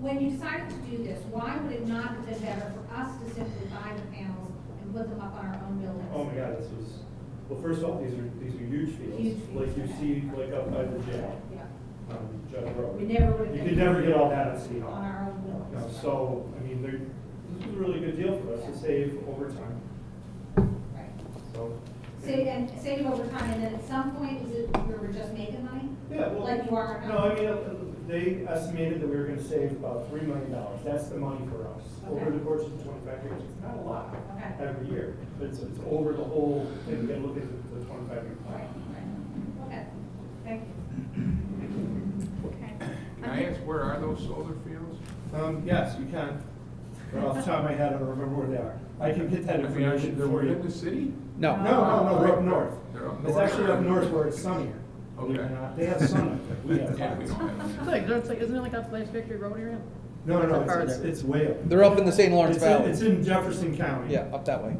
when you decided to do this, why would it not have been better for us to simply buy the panels and put them up on our own Oh buildings? my God, this was, well, first off, these are, these are huge Huge fields, fields, like you okay. see, like up by the jail, Yeah, on Judd we Road. never would have. You been could never get all that at City On Hall. our own You know, buildings. so, I mean, there, this was a really good deal for us to save over time, Right. so. Save, and save over time, and then at some point, is it, we were just making money? Yeah, well. Like you are No, now? I mean, uh, they estimated that we were gonna save about three million dollars, that's the money for us, over Okay. the course of twenty-five years, it's not a lot Okay. every year, but it's, it's over the whole, thing. you gotta look at the- the twenty-five year Right, plan. right, okay, thank you. Can I ask, where are those solar fields? Um, yes, you can. Right off the top of my head, I don't remember where they are. I can get that I mean, are they- information they're for within the you. city? No. No, no, no, they're up north. They're up It's north. actually up north where it's sunnier. believe it or Okay. not. They have sun up there, we have Yeah, we clouds. don't have. It's like, it's like, isn't it like off Last Victory Road area? No, no, no, it's, Farther. it's it's way up. They're up in the St. Lawrence It's in- Valley. It's in Jefferson County. Yeah, up that way.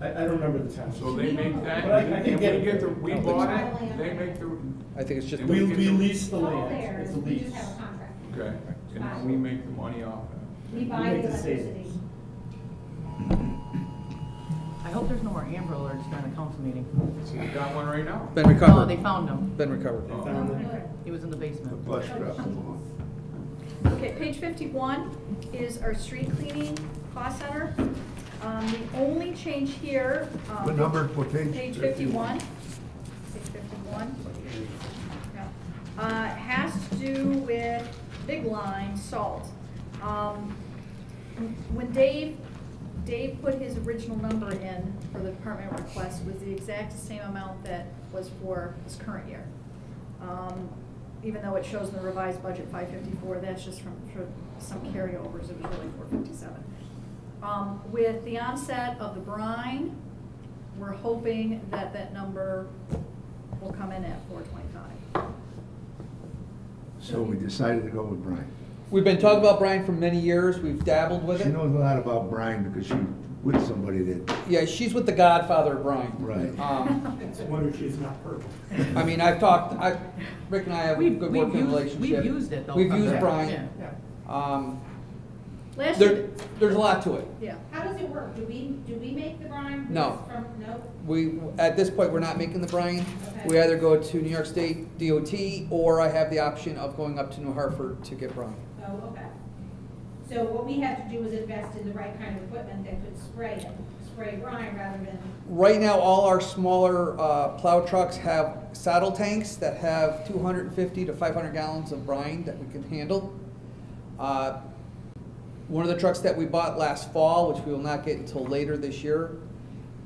I, I don't remember the town. So they make that, But I- I can and get it. we get the, we I don't think bought so. it, they make the, I think it's just. And We, we- we lease It's the all land, there, it's a we lease. just have a contract. okay, and then we make the money off of We buy make the the savings. electricity. I hope there's no more Amber Alerts during the council meeting. it. So we got one right now. Been No, Oh, they recovered. found him. Been recovered. They Oh. found that. He was in the basement. Flush Oh, it up. Okay, page fifty-one is our street cleaning cost center. Um, the only change here, um. What number, what page? Page fifty-one. Page fifty-one. Yeah. Uh, it has to do with big line salt. Um, when Dave, Dave put his original number in for the department request was the exact same amount that was for this current year. Um, Even though it shows in the revised budget five fifty-four, that's just from, for some carryovers, it was really four fifty-seven. Um, with the onset of the brine, we're hoping that that number will come in at four twenty-five. So we decided to go with Brian. We've been talking about Brian for many years. We've dabbled with She it. knows a lot about Brian because she with somebody that, Yeah, she's with the Godfather of Brian. Right. Um, It's a wonder she's not purple. I mean, I've talked, I, Rick and I have a We've- good we've working used- relationship. we've used it, though, We've from used the- Brian. Yeah. Um, Last there, year, there's a lot to it. yeah, How does it work? Do we, do we make the brine? No. From, no? We, at this point, we're not making the brine. We Okay. either go to New York State DOT or I have the option of going up to New Hartford to get brine. Oh, okay. So what we have to do is invest in the right kind of equipment that could spray it, spray brine rather than, Right now, all our smaller uh, plow trucks have saddle tanks that have 250 to 500 gallons of brine that we can handle. Uh, One of the trucks that we bought last fall, which we will not get until later this year,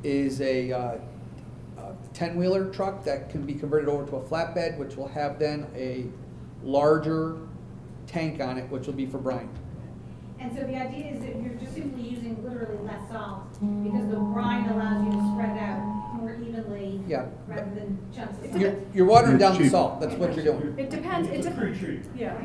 is a uh, a 10-wheeler truck that can be converted over to a flatbed, which will have then a larger tank on it, which will be for brine. and so the idea is that you're just simply using literally less salt because the brine allows you to spread out more evenly Yeah. rather than chunks of You're salt. you're watering down the Cheap. salt, that's what you're doing. it depends, it It's a depends, pre-treat. yeah,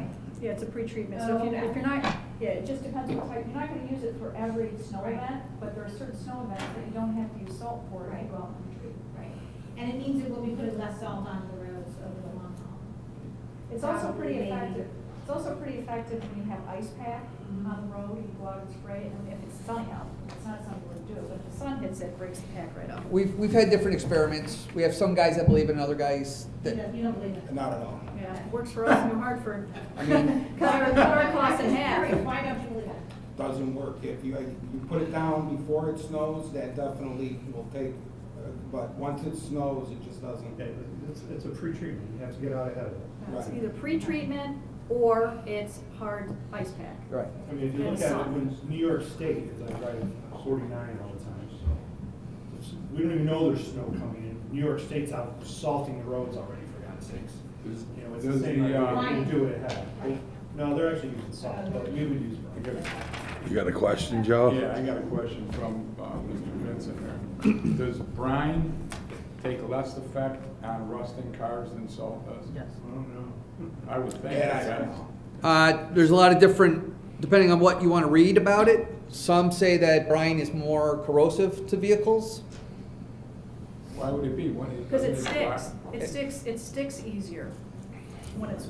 yeah, it's a pretreatment, so if you, if you're not, yeah, it just depends what type, you're not gonna use it for every snow event, but there are certain snow events that you don't have to use salt for, if you go out and treat. Right. And it means that we'll be putting less salt on the roads over the long haul. It's also pretty Probably. effective, it's also pretty effective when you have ice pack on the road, you go out and spray it, and if it's sunny out, it's not something we do, but if the sun hits it, breaks the pack right off. We've, we've had different experiments. We have some guys that believe in other guys You that, don't, you don't believe it? Not at all. Yeah, works for us in New Hartford. I mean, Cut our, cut our costs in half. Why don't you believe it? doesn't work. If you, you put it down before it snows, that definitely will take, uh, but once it snows, it just doesn't. It's, it's a pre-treatment, you have to get out ahead of it. It's either pre-treatment or it's hard ice pack. right. I mean, if you look And at it, salt. when New York State is like driving forty-nine all the time, so. it's- We don't even know there's snow coming in. New York State's out salting the roads already, for God's sakes. Does- You know, it's the Does same, the, like, uh, we do it ahead. No, they're actually using salt, but we would use brine. You got a question, Oh. Joe? Yeah, I got a question from uh, Mr. Vincent there. Does brine take less effect on rusting cars than salt does? Yes. I don't know. I would think. That I it don't does. know. Uh, there's a lot of different, depending on what you want to read about it. Some say that brine is more corrosive to vehicles. Why would it be? When it- Because it doesn't block- sticks, it sticks, it sticks easier when it's